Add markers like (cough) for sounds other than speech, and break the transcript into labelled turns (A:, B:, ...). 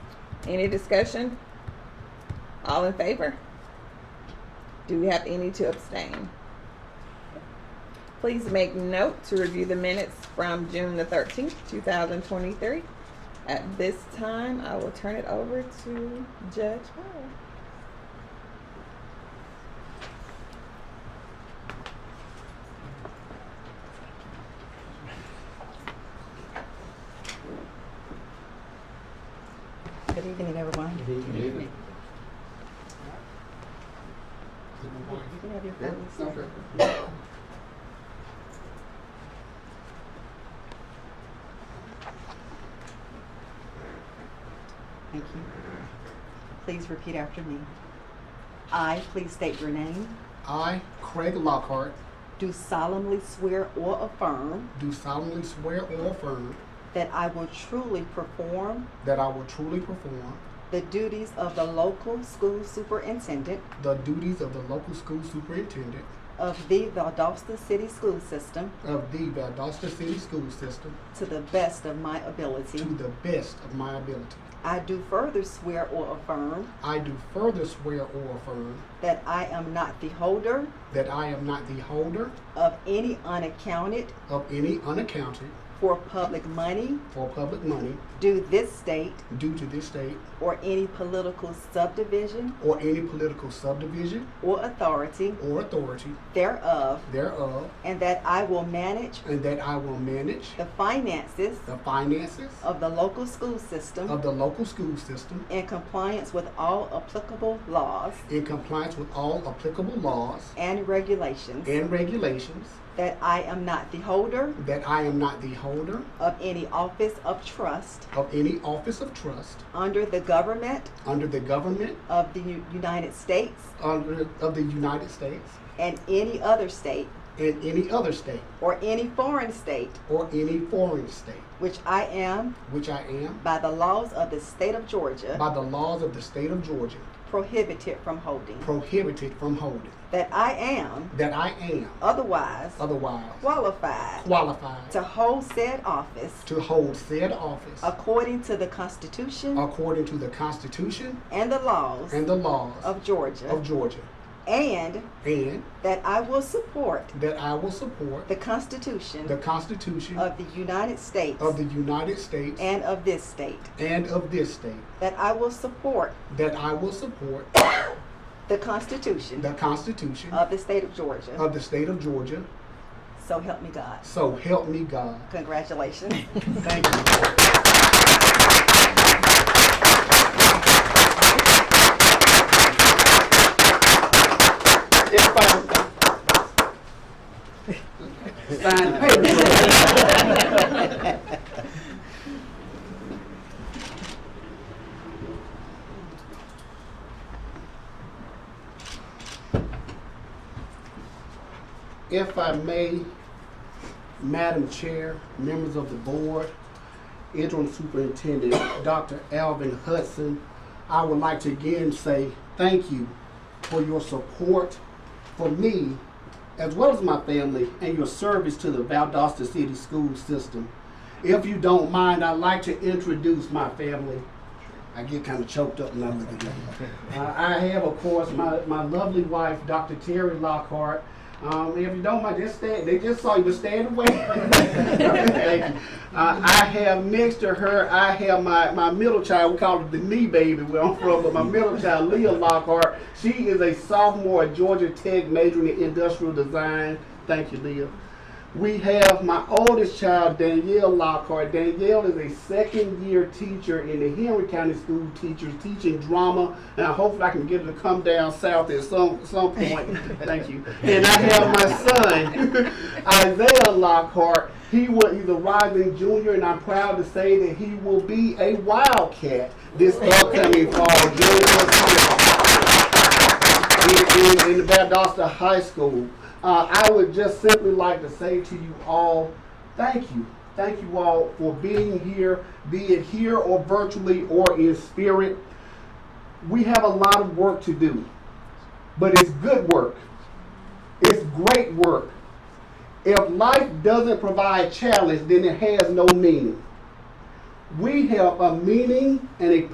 A: Any discussion? All in favor? Do we have any to abstain? Please make note to review the minutes from June the thirteenth, two thousand twenty-three. At this time, I will turn it over to Judge Powell.
B: Good evening, everyone. You can have your phones. Thank you. Please repeat after me. I, please state your name,
C: I, Craig Lockhart,
B: do solemnly swear or affirm
C: do solemnly swear or affirm
B: that I will truly perform
C: that I will truly perform
B: the duties of the local school superintendent
C: the duties of the local school superintendent
B: of the Valdosta City School System
C: of the Valdosta City School System
B: to the best of my
C: to
B: ability.
C: the best of my ability.
B: I do further swear or affirm
C: I do further swear or affirm
B: that I am not the holder
C: that I am not the holder
B: of any unaccounted
C: of any unaccounted
B: for public money
C: for public money
B: due this state
C: due to this state
B: or any political subdivision
C: or any political subdivision
B: or authority
C: or authority
B: thereof,
C: thereof,
B: and that I will manage
C: and that I will manage
B: the finances
C: the finances
B: of the local school
C: of
B: system
C: the local school system
B: in compliance with all applicable laws
C: in compliance with all applicable laws
B: and regulations,
C: and regulations,
B: that I am not the holder
C: that I am not the holder
B: of any office of trust
C: of any office of trust
B: under the government
C: under the government
B: of the U- United States
C: under, of the United States
B: and any other state
C: and any other state
B: or any foreign state
C: or any foreign state,
B: which I am
C: which I am,
B: by the laws of the state of Georgia
C: by the laws of the state of Georgia,
B: prohibited from holding.
C: prohibited from holding,
B: That I am
C: that I am
B: otherwise
C: otherwise
B: qualified
C: qualified
B: to hold said office
C: to hold said office
B: according to the Constitution
C: according to the Constitution
B: and the laws
C: and the laws
B: of
C: of
B: Georgia,
C: Georgia,
B: and
C: and
B: that I will support
C: that I will support
B: the Constitution
C: the Constitution
B: of the United States
C: of the United States
B: and of this state,
C: and of this state,
B: that I will support
C: that I will support
B: the Constitution
C: the Constitution
B: of the state of Georgia.
C: of the state of Georgia.
B: So help me God.
C: So help me God.
B: Congratulations.
C: (laughs) Thank you.
D: Sign the paper.
C: If I may, Madam Chair, members of the board, interim superintendent, Dr. Alvin Hudson, I would like to again say thank you for your support for me, as well as my family, and your service to the Valdosta City School System. If you don't mind, I'd like to introduce my family. I get kind of choked up when I look at them. Uh, I have, of course, my, my lovely wife, Dr. Terry Lockhart. Um, if you don't mind, just stand. They just saw you, but stand away. (laughs) Thank you. Uh, I have next to her, I have my, my middle child. We call her the knee baby where I'm from, but my middle child, Leah Lockhart. She is a sophomore at Georgia Tech, majoring in industrial design. Thank you, Leah. We have my oldest child, Danielle Lockhart. Danielle is a second year teacher in the Henry County School Teachers, teaching drama. And I hopefully I can get her to come down south at some, some point. Thank you. And I have my son, (laughs) Isaiah Lockhart. He will, he's a rising junior, and I'm proud to say that he will be a Wildcat this upcoming fall. Junior in, in, in the Valdosta High School. Uh, I would just simply like to say to you all, thank you. Thank you all for being here, be it here or virtually or in spirit. We have a lot of work to do, but it's good work. It's great work. If life doesn't provide challenge, then it has no meaning. We have a meaning and a